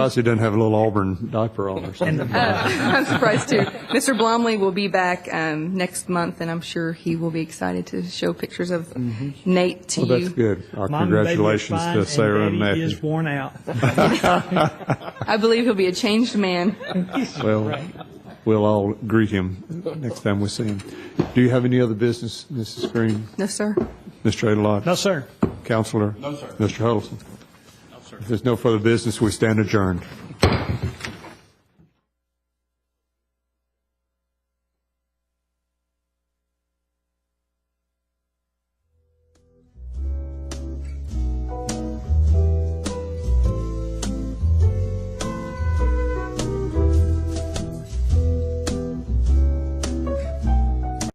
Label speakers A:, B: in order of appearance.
A: Surprised she doesn't have a little Auburn diaper on or something.
B: I'm surprised too. Mr. Blomley will be back um, next month, and I'm sure he will be excited to show pictures of Nate
A: Mm-hmm.
B: to
A: Well, that's
B: you.
A: good. Our
C: Mom and baby are
A: congratulations
C: fine,
A: to Sarah and
C: Daddy
A: Matthew.
C: is worn out.
B: I believe he'll be a changed man.
A: Well, we'll all greet him next time we see him. Do you have any other business, Mrs. Green,
B: no, sir.
A: Mr. Adalot?
C: No, sir.
A: Counselor? No, sir. Mr. Huddleston? No, sir. If there's no further business, we stand adjourned.